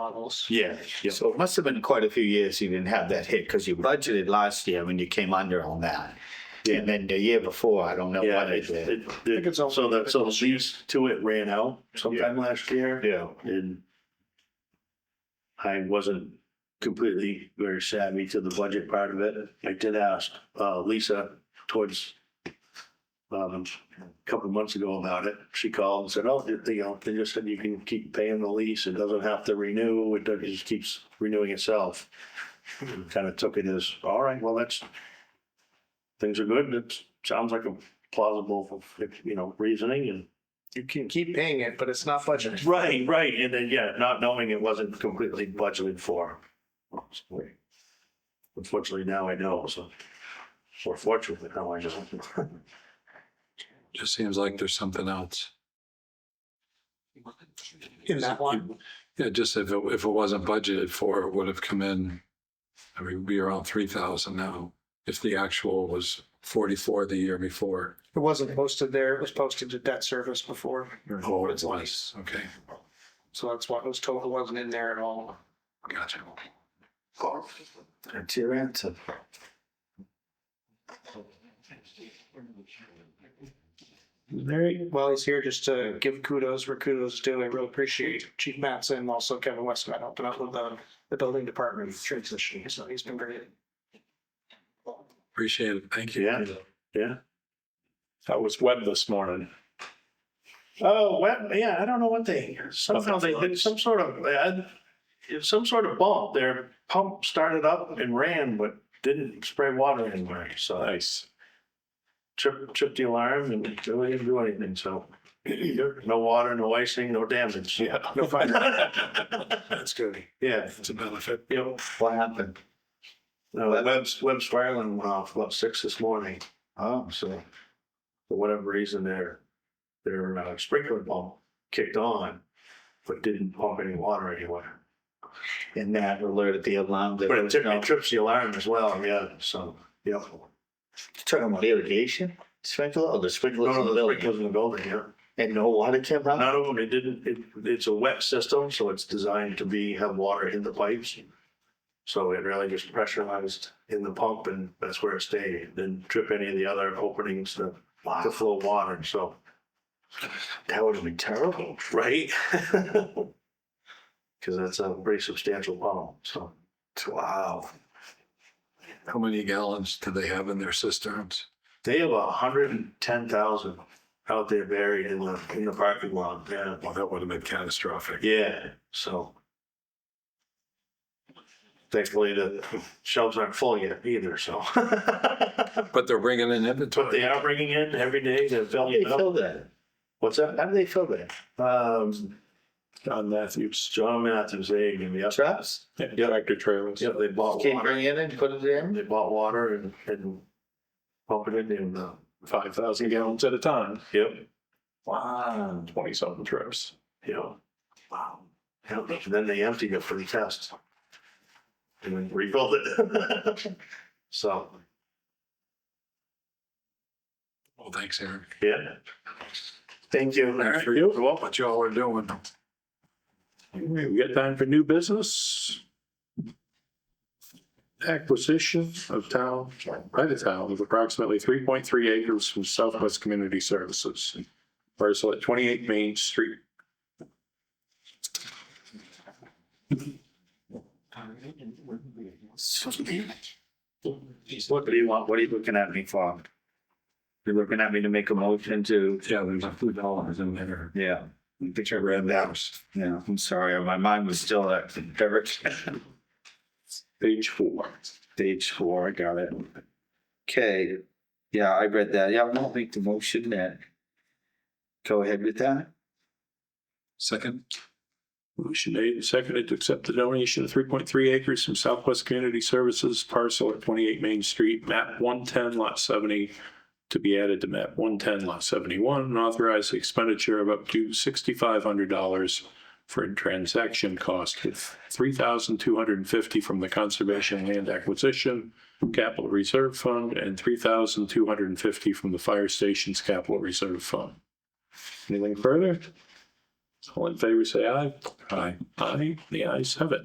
levels. Yeah, yeah. So it must have been quite a few years you didn't have that hit because you budgeted last year when you came under on that. And then the year before, I don't know Yeah, what I it, did. it, it- so the, so the lease to it ran out sometime last year Yeah, and I wasn't completely very savvy to the budget part of it. I did ask, uh, Lisa towards um, a couple of months ago about it. She called and said, oh, they, you know, they just said you can keep paying the lease. It doesn't have to renew. It does- it just keeps renewing itself. Kind of took it as, all right, well, that's, things are good. It sounds like a plausible, you know, reasoning and You can keep paying it, but it's not budgeted. Right, right, and then, yeah, not knowing it wasn't completely budgeted for. Unfortunately, now I know, so, or fortunately, now I know. Just seems like there's something else. In that one, Yeah, just if it, if it wasn't budgeted for, it would have come in. I mean, we'd be around three thousand now, if the actual was forty-four the year before. it wasn't posted there. It was posted to debt service before. Oh, it was, okay, So that's why it was total wasn't in there at all. gotcha. that's your answer. Larry, while he's here, just to give kudos where kudos is due, I really appreciate Chief Mattson and also Kevin Westman helping out with the, the building department transition. So he's been great. Appreciate it, thank you. Yeah, yeah. That was Webb this morning. Oh, well, yeah, I don't know what they, somehow they did some sort of, uh, it- some sort of bump. Their pump started up and ran, but didn't spray water anywhere, so Nice. tripped, tripped the alarm and it really didn't do anything, so. No water, no icing, no damage. Yeah. No fire. That's good. Yeah, It's a benefit. yep. What happened? No, the Webb's, Webb's fire alarm went off about six this morning. Oh, so, For whatever reason, their, their uh, sprinkler pump kicked on, but didn't pump any water anywhere. and that alerted the alarm. that But there it was tri- no- it trips the alarm as well, yeah, so, yeah. Talking about irrigation sprinkler or the sprinklers No, in no, the the building sprinklers in the building, yeah. and no water came out? None of them, it didn't, it, it's a wet system, so it's designed to be, have water in the pipes. So it really just pressurized in the pump and that's where it stayed. It Didn't trip any of the other openings to, Wow, to flow water, so. that would have been terrible. Right? Because that's a pretty substantial funnel, so. Wow. How many gallons do they have in their cisterns? They have a hundred and ten thousand out there buried in the, in the parking lot, yeah. Well, that would have been catastrophic. Yeah, so. Thankfully, the shelves aren't full yet either, so. But But they're bringing in they inventory. are bringing in every day to How fill do they it up. fill that? What's How that? do they fill that? Um, John Matthews. John Matthews, they gave me up. Traps? Tractor trailers. Yep, they bought Can't water. bring it in and put it in? They bought water and, and pump it in and, uh, Five thousand gallons at a time, yep. Wow. twenty something trips. Yeah. Wow. Yeah, and then they emptied it for the test. And then rebuilt it. So, Well, thanks, Eric. yeah. Thank you. Thanks for you. for what y'all are doing. We got time for new business? Acquisition of town, by the town of approximately three point three acres from Southwest Community Services. Parcel at twenty-eight Main Street. What do you want? What are you looking at me for? You're looking at me to make a motion to, Yeah, there's a few dollars in there. yeah. I think I read that. Yeah, I'm sorry. My mind was still at Derek. Page four. Page four, I got it. Okay, yeah, I read that. Yeah, I'll make the motion then. Go ahead with that. Second, Motion made and seconded to accept the donation of three point three acres from Southwest Community Services parcel at twenty-eight Main Street, map one ten lot seventy to be added to map one ten lot seventy-one and authorize the expenditure of up to sixty-five hundred dollars for a transaction cost with three thousand two hundred and fifty from the Conservation Land Acquisition Capital Reserve Fund and three thousand two hundred and fifty from the Fire Station's Capital Reserve Fund. Anything further? All in favor, say aye. Aye. Aye, the ayes have it.